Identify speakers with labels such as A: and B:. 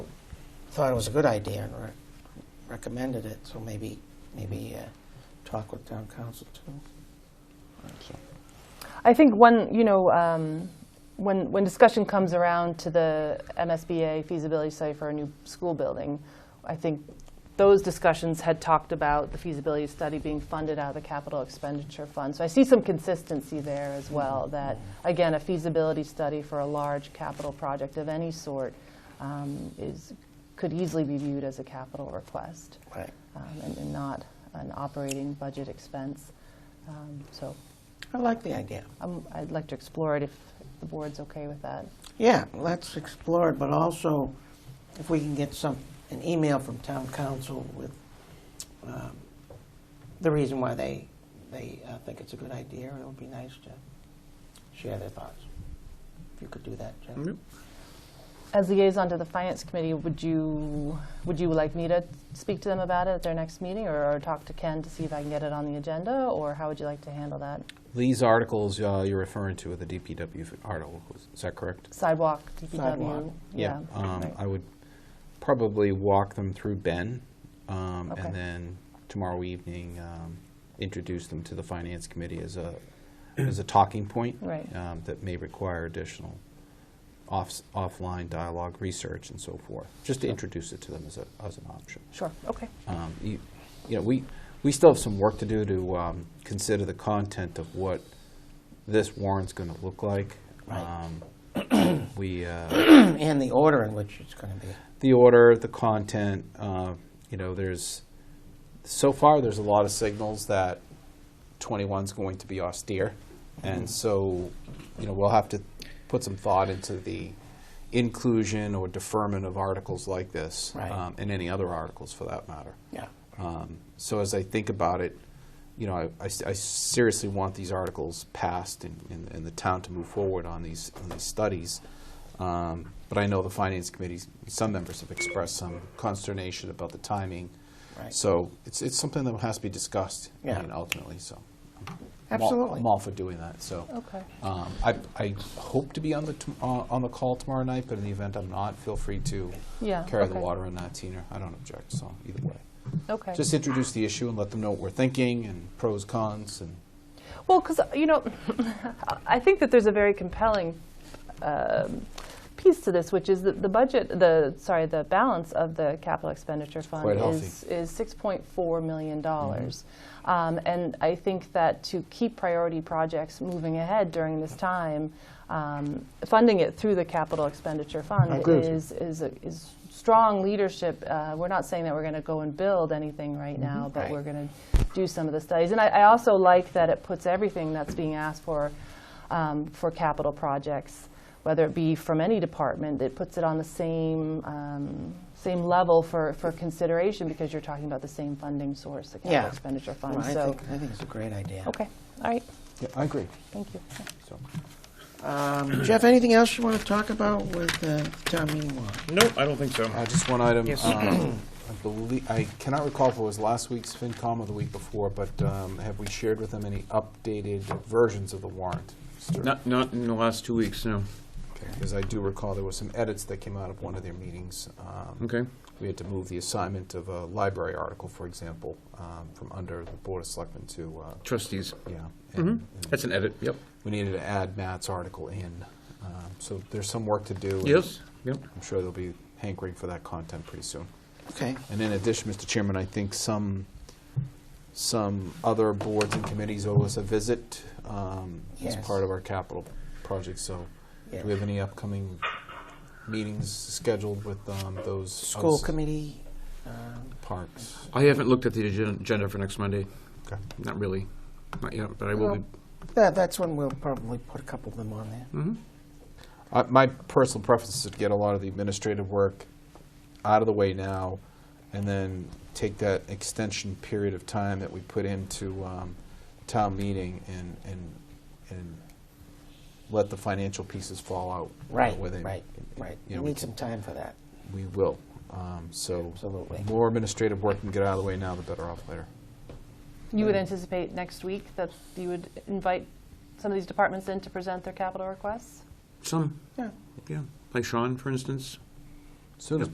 A: thought it was a good idea and re- recommended it, so maybe, maybe uh, talk with town council too.
B: I think when, you know, um, when, when discussion comes around to the MSBA feasibility study for a new school building, I think those discussions had talked about the feasibility study being funded out of the capital expenditure fund. So I see some consistency there as well, that, again, a feasibility study for a large capital project of any sort um, is, could easily be viewed as a capital request
A: Right.
B: um, and and not an operating budget expense. Um, So
A: I like the idea.
B: um, I'd like to explore it if the board's okay with that.
A: Yeah, let's explore it, but also if we can get some, an email from town council with um, the reason why they, they uh, think it's a good idea, it would be nice to share their thoughts. If you could do that, Jen.
B: As liaison to the Finance Committee, would you, would you like me to speak to them about it at their next meeting, or or talk to Ken to see if I can get it on the agenda, or how would you like to handle that?
C: These articles uh, you're referring to are the DPW articles, is that correct?
B: Sidewalk,
A: Sidewalk,
B: DPW?
C: Um,
B: right.
C: I would probably walk them through Ben, um,
B: Okay.
C: and then tomorrow evening, um, introduce them to the Finance Committee as a, as a talking point.
B: Right.
C: um, That may require additional off, offline dialogue, research, and so forth, just to introduce it to them as a, as an option.
B: Sure, okay.
C: Um, You you know, we, we still have some work to do to um, consider the content of what this warrant's going to look like.
A: Right.
C: Um, We, uh,
A: And the order in which it's going to be.
C: the order, the content, uh, you know, there's, so far, there's a lot of signals that 21's going to be austere.
A: Mm-hmm.
C: And so, you know, we'll have to put some thought into the inclusion or deferment of articles like this.
A: Right.
C: um, And any other articles for that matter.
A: Yeah.
C: Um, So as I think about it, you know, I- I s- I seriously want these articles passed and- and and the town to move forward on these, on these studies. Um, But I know the Finance Committee, some members have expressed some consternation about the timing.
A: Right.
C: So it's, it's something that has to be discussed, I
A: Yeah.
C: mean, ultimately, so. I'm all-
A: Absolutely.
C: I'm all for doing that, so.
B: Okay.
C: Um, I, I hope to be on the, tom- uh, on the call tomorrow night, but in the event I'm not, feel free to
B: Yeah,
C: carry the
B: okay.
C: water on that, Tina. I don't object, so either way.
B: Okay.
C: Just introduce the issue and let them know what we're thinking and pros, cons, and
B: Well, because, you know, I think that there's a very compelling um, piece to this, which is that the budget, the, sorry, the balance of the capital expenditure fund
C: quite healthy.
B: is, is $6.4
A: Mm-hmm.
B: million. Um, And I think that to keep priority projects moving ahead during this time, um, funding it through the capital expenditure fund
A: I agree with you.
B: is, is, a- is strong leadership. Uh, We're not saying that we're going to go and build anything right now, but
A: Mm-hmm. Right.
B: we're going to do some of the studies. And I, I also like that it puts everything that's being asked for, um, for capital projects, whether it be from any department, it puts it on the same, um, same level for, for consideration because you're talking about the same funding source, the
A: Yeah.
B: capital expenditure
A: Well,
B: fund,
A: I
B: so.
A: think, I think it's a great idea.
B: Okay, all right,
C: yeah, I agree.
B: thank you.
C: So
A: Um, Jeff, anything else you want to talk about with uh, the town meeting warrant?
D: Nope, I don't think so.
C: uh, just one item.
A: Yes.
C: um, I believe I cannot recall if it was last week's FinCom or the week before, but um, have we shared with them any updated versions of the warrant?
D: Not, not in the last two weeks, no.
C: Because I do recall there were some edits that came out of one of their meetings. um,
D: Okay.
C: We had to move the assignment of a library article, for example, um, from under the Board of Selectmen to, uh,
D: Trustees.
C: yeah. and-
D: hmm
C: and
D: That's an edit, yep.
C: We needed to add Matt's article in. Um, So there's some work to do. and
D: Yes, yep.
C: I'm sure they'll be hankering for that content pretty soon.
A: Okay.
C: And in addition, Mr. Chairman, I think some, some other boards and committees owe us a visit um, as
A: Yes.
C: part of our capital project, so do we have any upcoming meetings scheduled with um, those?
A: School
C: other s-
A: committee, um,
C: Parks.
D: I haven't looked at the agen- agenda for next Monday.
C: Okay.
D: Not really. Not yet, but I will be.
A: that, that's when we'll probably put a couple of them on there.
D: hmm
C: I- My personal preference is to get a lot of the administrative work out of the way now, and then take that extension period of time that we put into um, town meeting and, and, and let the financial pieces fall out.
A: Right,
C: where they-
A: right, right.
C: You
A: We
C: know, we
A: need
C: can-
A: some time for that.
C: we will. Um, So
A: Absolutely.
C: more administrative work can get out of the way now, the better off later.
B: You
A: Mm-hmm.
B: would anticipate next week that you would invite some of these departments in to present their capital requests?
D: Some,
A: Yeah.
D: yeah. Like Sean, for instance.
C: Soon as